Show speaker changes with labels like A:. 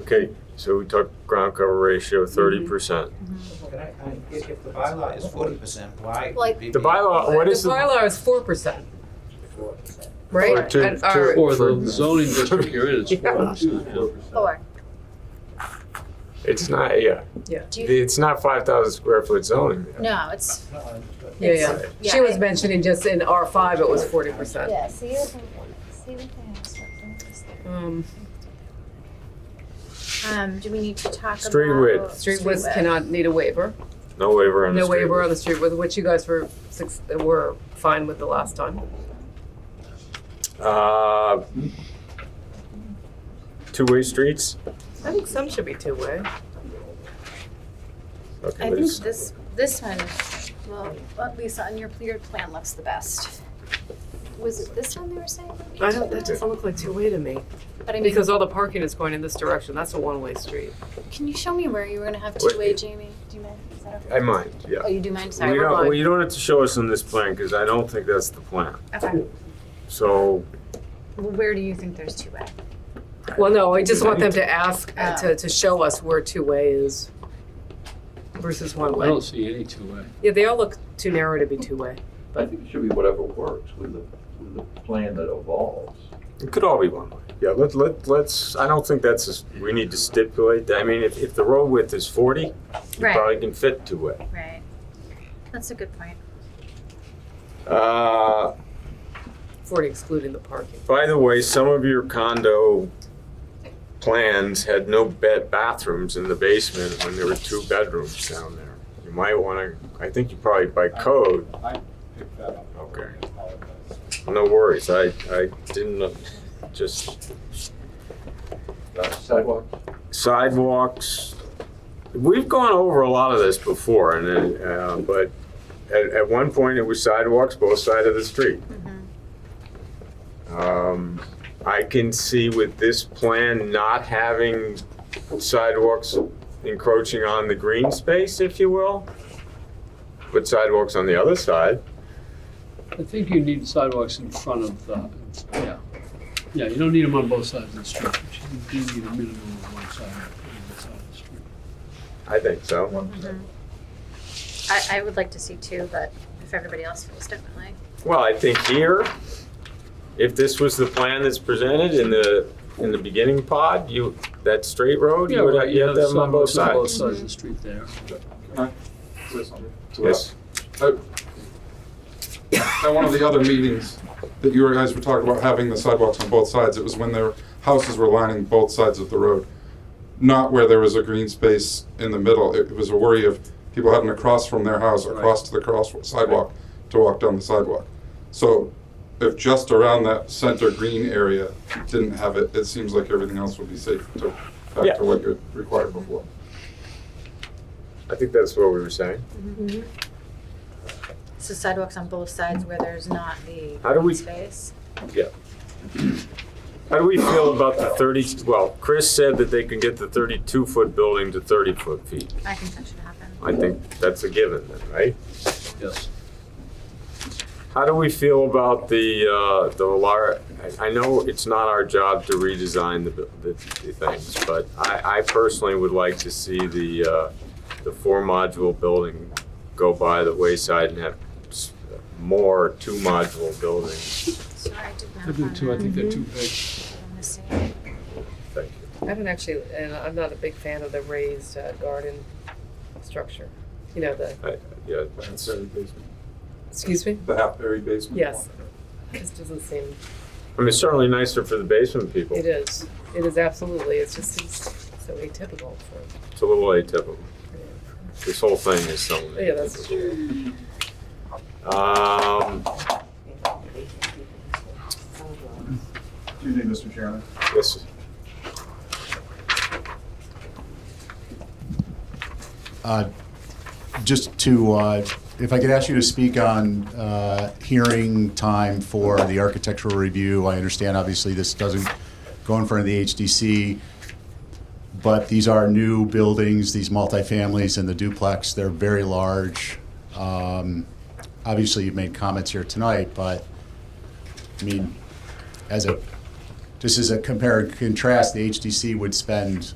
A: Okay, so we talked ground cover ratio thirty percent.
B: Can I, I mean, if, if the bylaw is forty percent, why? would
C: Like-
B: we
A: The
B: be-
A: bylaw, what
D: the
A: is the?
D: bylaw is four percent, right?
A: Or to-
D: And
A: to-
D: our-
E: Or
A: For-
E: the zoning district you're in is
D: Yeah.
E: four two.
C: Or,
A: It's not, yeah,
C: do you,
A: it's not five thousand square foot zoning.
C: no, it's,
B: No, I- but-
D: Yeah, yeah.
C: yeah.
D: She was mentioning just in R five, it was forty percent.
F: Yeah, see what they, see what they have stuck in this thing.
D: Um,
C: um, do we need to talk about?
A: Street width.
D: street widths cannot need a waiver,
A: No waiver on the
D: no
A: street.
D: waiver on the street width, which you guys were six, were fine with the last time.
A: Uh, two-way streets?
D: I think some should be two-way.
A: Okay,
C: I
A: but
C: think
A: it's-
C: this, this one, well, at least on your, your plan looks the best.
F: Was it this one they were saying? would be
D: I don't,
F: too?
D: that doesn't look like two-way to me,
C: But I mean,
D: because all the parking is going in this direction, that's a one-way street.
C: can you show me where you were gonna have
A: Wait.
C: two-way, Jamie? Do you mind? Is that okay?
A: I mind, yeah.
C: Oh, you do mind?
A: Well,
C: Sorry.
A: you don't,
D: mind.
A: well, you don't have to show us on this plan, because I don't think that's the plan.
C: Okay.
A: So,
C: Where do you think there's two-way?
D: Well, no, I just want them to ask, uh, to, to show us where two-way is versus
E: I
D: one-way.
E: don't see any two-way.
D: Yeah, they all look too narrow to be two-way.
G: I think it should be whatever works with the, with the plan that evolves.
A: it could all be one way. Yeah, let, let, let's, I don't think that's, a- we need to stipulate, that. I mean, if, if the road width is forty, you
C: Right.
A: probably can fit two-way.
C: Right. That's a good point.
A: Uh,
D: Forty excluding the parking.
A: By the way, some of your condo plans had no bed bathrooms in the basement when there were two bedrooms down there. You might wanna, I think you probably by code,
H: I picked that up.
A: Okay.
H: I apologize.
A: no worries, I, I didn't, know- just
G: Uh, Sidewalks,
A: sidewalks. We've gone over a lot of this before and then, uh, but at, at one point it was sidewalks both sides of the street. Um, I can see with this plan not having sidewalks encroaching on the green space, if you will. Put sidewalks on the other side.
E: I think you need sidewalks in front of the, yeah. Yeah, you don't need them on both sides of the street, but you do need a minimum of one sidewalk on the side of the street.
A: I think so.
D: Mm-hmm.
C: I, I would like to see two, but if everybody else feels differently.
A: Well, I think here, if this was the plan that's presented in the, in the beginning pod, you, that straight road, you would have, you have them on both
E: sidewalks
A: sides.
E: Both sides of the street there.
H: Say something.
A: Yes,
H: At Oh. one of the other meetings that you guys were talking about having the sidewalks on both sides, it was when their houses were lining both sides of the road. Not where there was a green space in the middle. It it was a worry of people having to cross from their house across to the cross sidewalk to walk down the sidewalk. So if just around that center green area didn't have it, it seems like everything else would be safe to, back
A: Yeah.
H: to what you required before.
A: I think that's what we were saying.
C: Mm-hmm. So sidewalks on both sides where there's not the
A: How do we-
C: space.
A: Mm-hmm. How do we feel about the 30, well, Chris said that they can get the 32-foot building to 30-foot feet.
C: I think that should happen.
A: I think that's a given then, right?
E: Yes.
A: How do we feel about the, uh, the lar, I I know it's not our job to redesign the, bu- the the things, but I, I personally would like to see the, uh, the four module building go by the wayside and have s- more two module buildings.
C: Sorry, I did not.
E: I do
C: want
E: too, I
C: that.
E: think they're too big.
C: I'm missing it.
A: Thank you.
D: I haven't actually, and I'm not a big fan of the raised uh, garden structure. You know, the,
A: I- Yeah,
H: That's every basement.
D: excuse me?
H: The half-buried basement.
D: Yes. This doesn't seem,
A: I mean, it's certainly nicer for the basement people.
D: it is, it is absolutely, it's just it's so atypical for,
A: It's a little atypical. This whole thing is so
D: yeah, that's
A: atypical.
D: true.
A: Um,
H: Excuse me, Mr. Chairman.
A: this,
I: Uh, Just to, uh, if I could ask you to speak on uh, hearing time for the architectural review, I understand obviously this doesn't go in front of the HDC, but these are new buildings, these multifamilies and the duplex, they're very large. Um, Obviously, you've made comments here tonight, but, I mean, as a, just as a compare and contrast, the HDC would spend